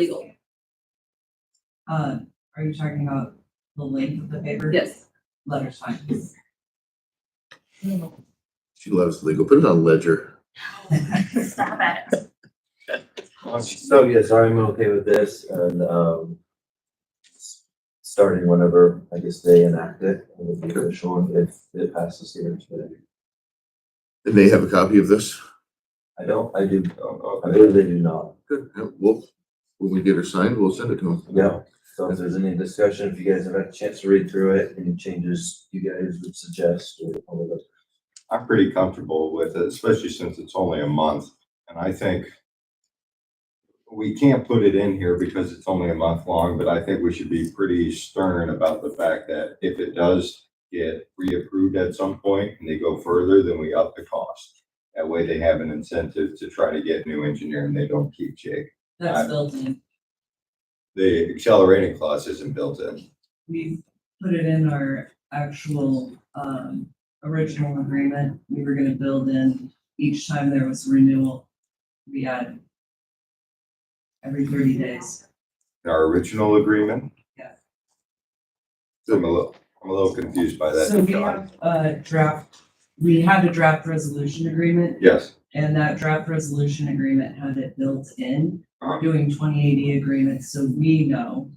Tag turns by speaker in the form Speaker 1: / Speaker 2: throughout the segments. Speaker 1: legal.
Speaker 2: Uh, are you talking about the length of the paper?
Speaker 1: Yes.
Speaker 2: Letters fine.
Speaker 3: She loves legal. Put it on ledger.
Speaker 4: Stop it.
Speaker 5: So yes, I'm okay with this and, um, starting whenever, I guess, they enact it, it would be official and if it passes here today.
Speaker 3: And they have a copy of this.
Speaker 5: I don't, I do, I believe they do not.
Speaker 3: Good. Yeah, We'll, when we get her signed, we'll send it to them.
Speaker 5: Yeah, so if there's any discussion, if you guys have had a chance to read through it, any changes you guys would suggest or all of it.
Speaker 6: I'm pretty comfortable with it, especially since it's only a month. And I think we can't put it in here because it's only a month long, but I think we should be pretty stern about the fact that if it does get reapproved at some point and they go further, then we up the cost. That way they have an incentive to try to get new engineer and they don't keep Jake.
Speaker 2: That's built in.
Speaker 6: The accelerating clause isn't built in.
Speaker 2: We put it in our actual, um, original agreement. We were gonna build in each time there was renewal. We had every thirty days.
Speaker 6: Our original agreement?
Speaker 2: Yeah.
Speaker 6: I'm a little, I'm a little confused by that.
Speaker 2: So we
Speaker 6: John.
Speaker 2: have a draft, we had a draft resolution agreement
Speaker 6: Yes.
Speaker 2: And that draft resolution agreement had it built in, We're
Speaker 6: Uh-huh.
Speaker 2: doing twenty eighty agreements, so we know.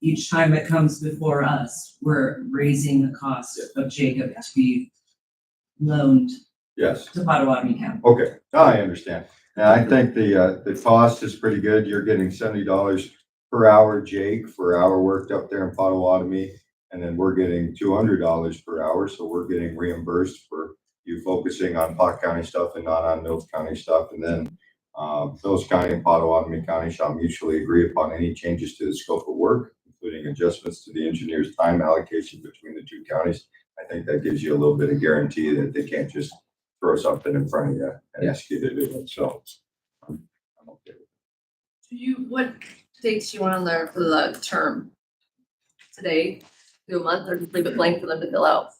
Speaker 2: Each time it comes before us, we're raising the cost of Jacob to be loaned
Speaker 6: Yes.
Speaker 2: to Potawatomi County.
Speaker 6: Okay, now Oh, I understand. And I think the, uh, the cost is pretty good. You're getting seventy dollars per hour, Jake, for hour worked up there in Potawatomi. And then we're getting two hundred dollars per hour, so we're getting reimbursed for you focusing on Pot County stuff and not on Mills County stuff. And then, uh, Mills County and Potawatomi County shall mutually agree upon any changes to the scope of work, including adjustments to the engineer's time allocation between the two counties. I think that gives you a little bit of guarantee that they can't just throw something in front of you and ask you to do it, so. I'm okay with
Speaker 1: Do you, what dates you want to learn for the term? Today, do a month, or just leave it blank for them to fill out?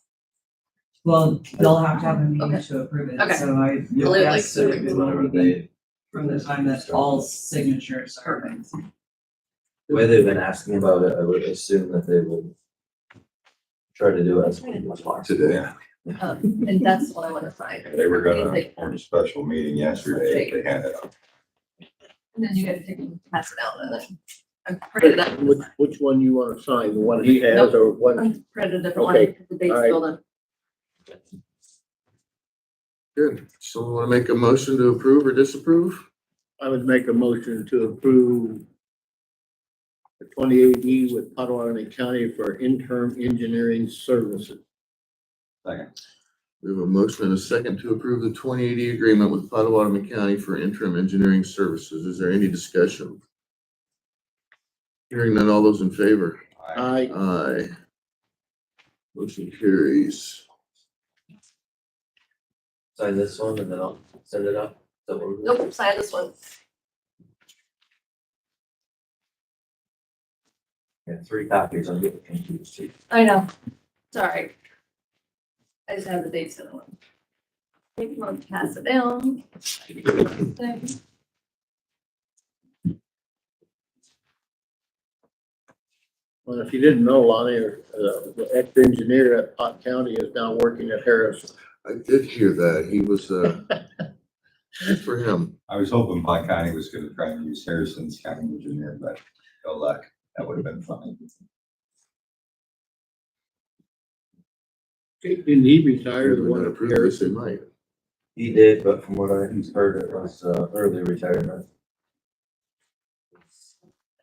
Speaker 2: Well, they'll have to have a meeting
Speaker 1: Okay.
Speaker 2: to approve it,
Speaker 1: Okay.
Speaker 2: so I
Speaker 1: I'll leave it like
Speaker 2: guess that it
Speaker 5: Maybe
Speaker 2: will
Speaker 5: whenever
Speaker 2: be
Speaker 5: they-
Speaker 2: from the time that all signatures are. made.
Speaker 5: The way they've been asking about it, I would assume that they would try to do it as much as
Speaker 6: it.
Speaker 3: Today.
Speaker 6: Yeah,
Speaker 1: Um, And that's what I want to find.
Speaker 6: They were gonna
Speaker 1: Anything.
Speaker 6: hold a special meeting yesterday if they had it.
Speaker 1: And then you gotta take and pass it out, and then I'm printed up,
Speaker 7: Which, which one you wanna sign, the one he has or what?
Speaker 1: I'm printed a different one,
Speaker 7: Okay,
Speaker 1: because the date's
Speaker 7: all right.
Speaker 1: filled in.
Speaker 3: Good. Someone want to make a motion to approve or disapprove?
Speaker 7: I would make a motion to approve the twenty-eight E with Potawatomi County for interim engineering services.
Speaker 3: We have a motion and a second to approve the twenty eighty agreement with Potawatomi County for interim engineering services. Is there any discussion? Hearing none, all those in favor?
Speaker 7: I,
Speaker 3: Aye. Motion carries.
Speaker 5: Sign this one and then I'll send it up. Is that what we're doing?
Speaker 1: Nope, sign this one.
Speaker 5: Yeah, three copies, I'm getting confused. too.
Speaker 1: I know, sorry. I just have the dates in the one. Take one, pass it down.
Speaker 7: well, if you didn't know, Lonnie, uh, the ex-engineer at Pot County is now working at Harris.
Speaker 3: I did hear that. He was, uh, good for him.
Speaker 6: I was hoping Pot County was gonna try and use Harrison's county engineer, but no luck. That would have been fun.
Speaker 7: Didn't he retire,
Speaker 3: If
Speaker 7: the
Speaker 3: we
Speaker 7: one
Speaker 3: don't
Speaker 7: at
Speaker 3: approve
Speaker 7: Harris?
Speaker 3: this, they might.
Speaker 5: He did, but from what I heard, it was, uh, early retirement.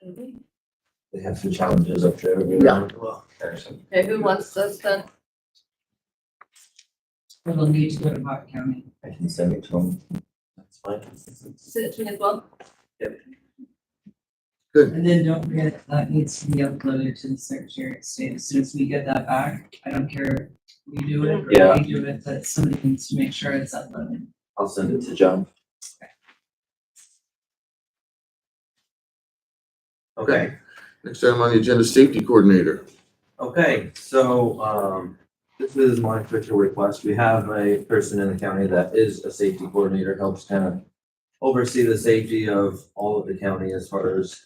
Speaker 1: Okay,
Speaker 5: They have some challenges up there.
Speaker 7: Yeah.
Speaker 5: Well,
Speaker 6: Harrison,
Speaker 1: who wants this then?
Speaker 2: Or they'll need to go to Pot County.
Speaker 5: I can send it to him. That's fine.
Speaker 1: Sit it to me as well?
Speaker 2: And then don't forget, that needs to be uploaded to the Secretary of State. As soon as we get that back, I don't care if we do it or
Speaker 5: Yeah.
Speaker 2: we do it, but somebody needs to make sure it's uploaded.
Speaker 5: I'll send it to John. Okay.
Speaker 3: Next item on the agenda, safety coordinator.
Speaker 5: Okay, so, um, this is my official request. We have a person in the county that is a safety coordinator, helps kind of oversee the safety of all of the county as far as